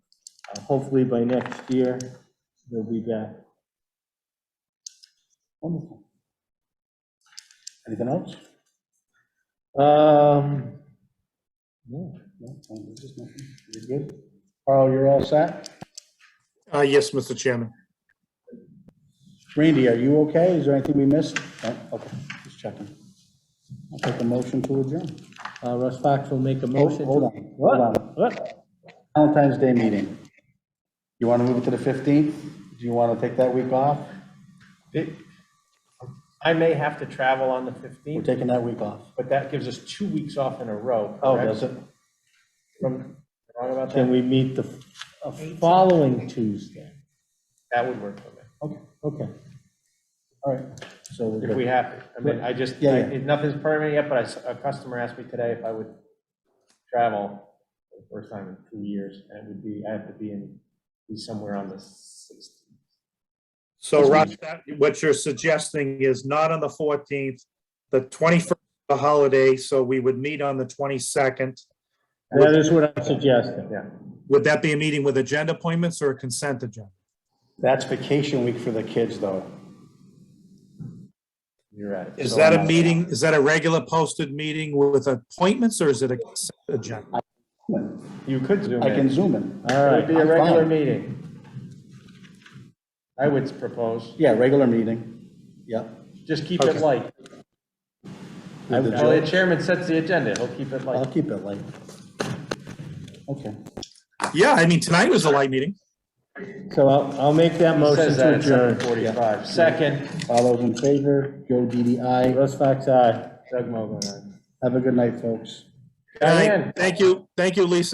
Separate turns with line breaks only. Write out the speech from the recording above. Uh, Hopefully by next year, they'll be back.
Wonderful. Anything else?
Um,
No, no, no, there's just nothing. You're good. Carl, you're all set?
Uh, yes, Mr. Chairman.
Randy, are you okay? Is there anything we missed? No? Okay, just checking. I'll take a motion to adjourn.
uh, Russ Fox will make a
Hold
motion.
hold
to-
on, hold
What?
on.
What?
Valentine's Day meeting. You want to move it to the 15th? Do you want to take that week off?
It- I may have to travel on the
We're
15th,
taking that week off.
but that gives us two weeks off in a row.
Oh,
correct?
does it?
From, wrong about
Can
that?
we meet the uh, following Tuesday?
That would work for me,
Okay,
Okay.
all right. So we're
if we
good.
have to. I mean, I just,
Yeah, yeah.
I- nothing's permanent yet, but I s- a customer asked me today if I would travel for the first time in two years, and it would be, I have to be in, be somewhere on the 16th.
So Russ, that- what you're suggesting is not on the 14th, the 21st, the holiday, so we would meet on the 22nd.
That is what I'm suggesting.
Yeah,
Would that be a meeting with agenda appointments or a consent agenda?
That's vacation week for the kids, though.
you're right.
Is
So
that
I'm
a
out.
meeting, is that a regular posted meeting with appointments or is it a consent agenda?
You could zoom
I can
in.
zoom in.
All
It would
right.
be a
I'm
regular
fine.
meeting. I would propose,
Yeah, regular meeting. Yep.
just keep it
Okay.
light.
With the
Well, the
joke.
chairman sets the agenda, he'll keep it
I'll
like,
keep it light. Okay.
Yeah, I mean, tonight was a light meeting.
So I'll, I'll make that
he
motion
says that
to
at seven
adjourn.
forty-five. Second,
All those in favor, Joe DDI.
Russ Fox, aye.
Doug Mogul, aye.
Have a good night, folks.
All right.
Diane.
Thank you, thank you, Lisa.